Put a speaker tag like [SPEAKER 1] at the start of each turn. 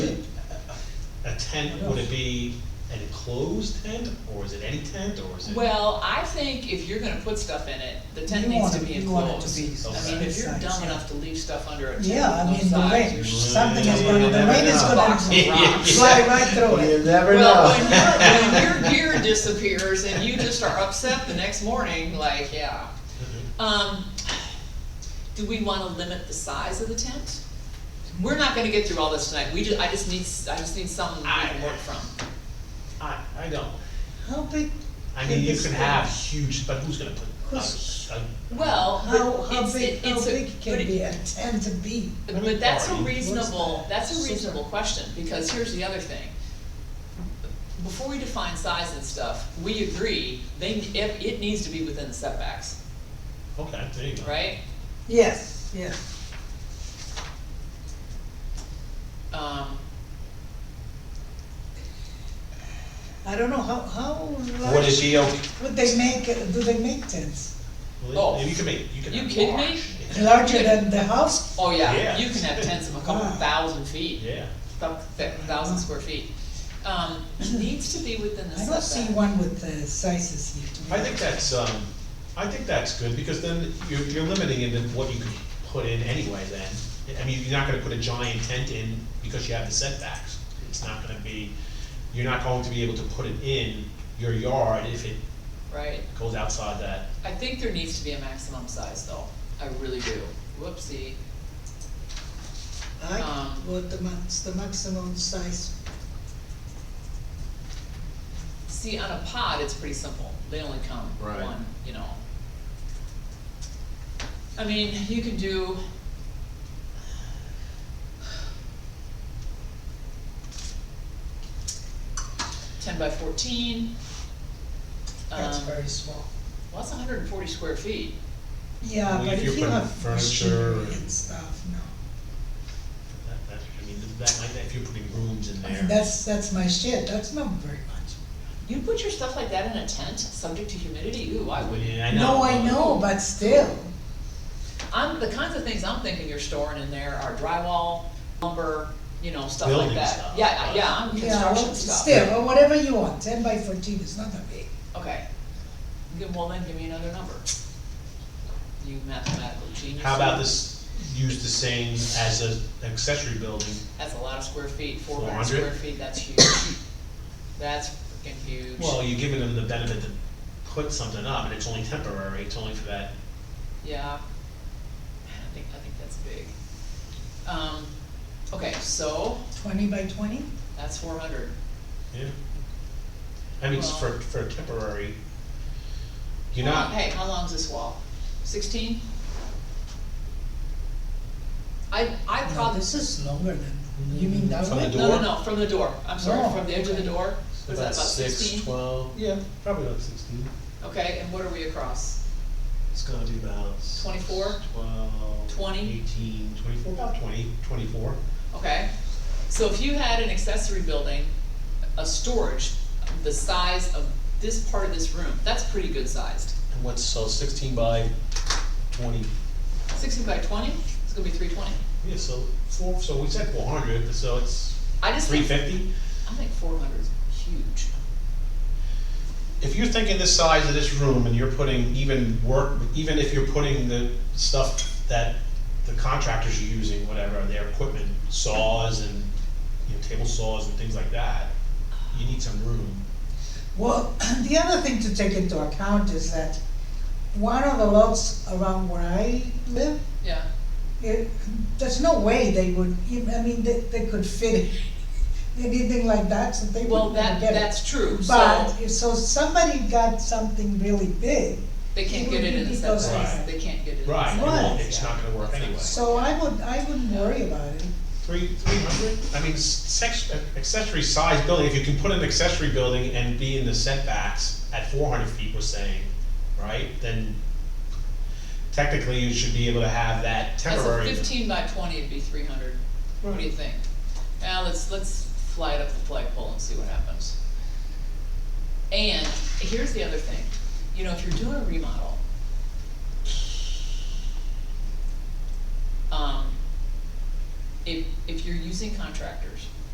[SPEAKER 1] tent, would it be an enclosed tent, or is it any tent, or is it?
[SPEAKER 2] Well, I think if you're gonna put stuff in it, the tent
[SPEAKER 3] You
[SPEAKER 2] needs
[SPEAKER 3] want
[SPEAKER 2] to
[SPEAKER 3] it-
[SPEAKER 2] be
[SPEAKER 3] you want it to
[SPEAKER 2] enclosed.
[SPEAKER 3] be
[SPEAKER 2] I mean, if you're
[SPEAKER 3] size,
[SPEAKER 2] dumb
[SPEAKER 3] yeah.
[SPEAKER 2] enough to leave stuff under a tent
[SPEAKER 3] Yeah, I
[SPEAKER 2] with
[SPEAKER 3] mean, the
[SPEAKER 2] no
[SPEAKER 3] rain-
[SPEAKER 2] sides, you're.
[SPEAKER 3] something
[SPEAKER 2] is
[SPEAKER 1] Yeah,
[SPEAKER 2] gonna-
[SPEAKER 1] you
[SPEAKER 2] the
[SPEAKER 1] never
[SPEAKER 2] rain is
[SPEAKER 1] know.
[SPEAKER 2] gonna Box of
[SPEAKER 1] Yeah, yeah,
[SPEAKER 2] rocks.
[SPEAKER 1] yeah.
[SPEAKER 3] Slide right through it.
[SPEAKER 4] You never
[SPEAKER 2] Well,
[SPEAKER 4] know.
[SPEAKER 2] when your, when your gear disappears and you just are upset the next morning, like, yeah.
[SPEAKER 1] Mm-hmm.
[SPEAKER 2] Um, do we wanna limit the size of the tent? We're not gonna get through all this tonight, we ju, I just need, s- I just need something we can work from.
[SPEAKER 1] I, I don't,
[SPEAKER 3] How big,
[SPEAKER 1] I mean, you
[SPEAKER 3] It's-
[SPEAKER 1] can have huge, but who's gonna put, uh, a
[SPEAKER 3] Who's-
[SPEAKER 1] a
[SPEAKER 2] Well,
[SPEAKER 3] how,
[SPEAKER 2] but
[SPEAKER 3] how
[SPEAKER 2] it's,
[SPEAKER 3] big,
[SPEAKER 2] it-
[SPEAKER 3] how
[SPEAKER 2] it's a,
[SPEAKER 3] big
[SPEAKER 2] but
[SPEAKER 3] can
[SPEAKER 2] it-
[SPEAKER 3] be a tent to be?
[SPEAKER 2] But that's a
[SPEAKER 1] Party.
[SPEAKER 2] reasonable,
[SPEAKER 3] What's that?
[SPEAKER 2] that's a reasonable question, because here's the other thing. Before we define size and stuff, we agree, they, it, it needs to be within the setbacks,
[SPEAKER 1] Okay, there you go.
[SPEAKER 2] right?
[SPEAKER 3] Yes, yes.
[SPEAKER 2] Um,
[SPEAKER 3] I don't know, how, how
[SPEAKER 1] Would it
[SPEAKER 3] large
[SPEAKER 1] be, okay-
[SPEAKER 3] would they make, do they make tents?
[SPEAKER 1] well,
[SPEAKER 2] Oh.
[SPEAKER 1] you can make, you can
[SPEAKER 2] You
[SPEAKER 1] have
[SPEAKER 2] kidding me?
[SPEAKER 1] large.
[SPEAKER 3] Larger than the house?
[SPEAKER 2] oh yeah,
[SPEAKER 1] Yeah.
[SPEAKER 2] you can have tents of a couple
[SPEAKER 3] Wow.
[SPEAKER 2] thousand feet,
[SPEAKER 1] Yeah,
[SPEAKER 2] thou- thou- thousand square feet. Um, needs to be within the
[SPEAKER 3] I don't see
[SPEAKER 2] setback.
[SPEAKER 3] one with the sizes here. to me.
[SPEAKER 1] I think that's, um, I think that's good, because then you're, you're limiting in what you can put in anyway then. I mean, you're not gonna put a giant tent in because you have the setbacks. It's not gonna be, you're not going to be able to put it in your yard if it
[SPEAKER 2] Right,
[SPEAKER 1] goes outside that.
[SPEAKER 2] I think there needs to be a maximum size though, I really do, whoopsie.
[SPEAKER 3] I,
[SPEAKER 2] um,
[SPEAKER 3] what the max, the maximum size,
[SPEAKER 2] See, on a pod, it's pretty simple, they only come
[SPEAKER 4] Right.
[SPEAKER 2] one, you know. I mean, you can do. Ten by fourteen.
[SPEAKER 3] that's
[SPEAKER 2] Um,
[SPEAKER 3] very small.
[SPEAKER 2] Well, that's hundred and forty square feet,
[SPEAKER 3] Yeah,
[SPEAKER 1] Well,
[SPEAKER 3] but
[SPEAKER 1] if
[SPEAKER 3] if
[SPEAKER 1] you
[SPEAKER 3] you
[SPEAKER 1] put
[SPEAKER 3] have
[SPEAKER 1] furniture
[SPEAKER 3] machinery
[SPEAKER 1] and-
[SPEAKER 3] and stuff, no.
[SPEAKER 1] That, that, I mean, that might, if you're putting rooms in
[SPEAKER 3] I mean,
[SPEAKER 1] there.
[SPEAKER 3] that's, that's my shed, that's not very much.
[SPEAKER 2] you put your stuff like that in a tent, subject to humidity, ooh, I
[SPEAKER 1] I
[SPEAKER 2] would.
[SPEAKER 1] mean, I know.
[SPEAKER 3] No, I know, but still,
[SPEAKER 2] I'm, the kinds of things I'm thinking you're storing in there are drywall, lumber, you know, stuff like
[SPEAKER 1] Building
[SPEAKER 2] that.
[SPEAKER 1] stuff,
[SPEAKER 2] Yeah, I-
[SPEAKER 1] right.
[SPEAKER 2] yeah, I'm
[SPEAKER 3] yeah, well,
[SPEAKER 2] construction stuff.
[SPEAKER 3] still, well, whatever you want, ten by fourteen is not that big.
[SPEAKER 2] Okay, Give- well then, give me another number. You mathematical genius.
[SPEAKER 1] How about this, use the same as a accessory building,
[SPEAKER 2] That's a lot of square feet, four hundred
[SPEAKER 1] 400?
[SPEAKER 2] square feet, that's huge. That's freaking huge.
[SPEAKER 1] Well, you're giving them the benefit to put something up, and it's only temporary, it's only for that,
[SPEAKER 2] Yeah. Man, I think, I think that's big. Um, okay, so
[SPEAKER 3] Twenty by twenty?
[SPEAKER 2] that's four hundred.
[SPEAKER 1] yeah. I mean, it's for,
[SPEAKER 2] Well-
[SPEAKER 1] for temporary. You're not,
[SPEAKER 2] Hey, how long's this wall? Sixteen? I, I
[SPEAKER 3] No,
[SPEAKER 2] probably.
[SPEAKER 3] this is longer than, you mean that
[SPEAKER 1] From the
[SPEAKER 3] way?
[SPEAKER 1] door?
[SPEAKER 2] No, no, no, from the door, I'm sorry,
[SPEAKER 3] Oh,
[SPEAKER 2] from the edge of the
[SPEAKER 3] okay.
[SPEAKER 2] door, was that about sixteen?
[SPEAKER 4] Six, twelve,
[SPEAKER 1] yeah, probably about sixteen.
[SPEAKER 2] Okay, and what are we across?
[SPEAKER 1] It's gonna be about.
[SPEAKER 2] 24?
[SPEAKER 1] Twelve.
[SPEAKER 2] 20?
[SPEAKER 1] Eighteen, twenty-four, about twenty, twenty-four.
[SPEAKER 2] Okay, so if you had an accessory building, a storage, the size of this part of this room, that's pretty good sized.
[SPEAKER 4] and what's, so sixteen by twenty,
[SPEAKER 2] Sixteen by twenty, it's gonna be three twenty.
[SPEAKER 1] Yeah, so four, so we said four hundred, so it's
[SPEAKER 2] I just
[SPEAKER 1] three
[SPEAKER 2] think,
[SPEAKER 1] fifty.
[SPEAKER 2] I think four hundred is huge.
[SPEAKER 1] If you're thinking the size of this room and you're putting even work, even if you're putting the stuff that the contractors are using, whatever, their equipment, saws and, you know, table saws and things like that, you need some room.
[SPEAKER 3] Well, the other thing to take into account is that one of the lots around where I live,
[SPEAKER 2] Yeah,
[SPEAKER 3] it, there's no way they would, ev- I mean, they, they could fit anything like that, so they
[SPEAKER 2] well,
[SPEAKER 3] wouldn't
[SPEAKER 2] that,
[SPEAKER 3] get it.
[SPEAKER 2] that's true, so
[SPEAKER 3] But, if- so somebody got something really big,
[SPEAKER 2] they can't
[SPEAKER 3] it
[SPEAKER 2] get
[SPEAKER 3] would
[SPEAKER 2] it in the
[SPEAKER 3] be because
[SPEAKER 2] setbacks,
[SPEAKER 1] of-
[SPEAKER 2] they can't get it in the
[SPEAKER 1] Right, it
[SPEAKER 2] setbacks.
[SPEAKER 1] won't, it's not gonna work anyway.
[SPEAKER 3] so I would, I wouldn't worry about it.
[SPEAKER 1] Three, three hundred? I mean, sex, accessory size building, if you can put an accessory building and be in the setbacks at four hundred feet, we're saying, right? Then technically you should be able to have that
[SPEAKER 2] As
[SPEAKER 1] temporary.
[SPEAKER 2] a fifteen by twenty, it'd be three hundred, what do you think? Now, let's, let's fly it up the flagpole and see what happens. And here's the other thing, you know, if you're doing a remodel, um, if, if you're using contractors,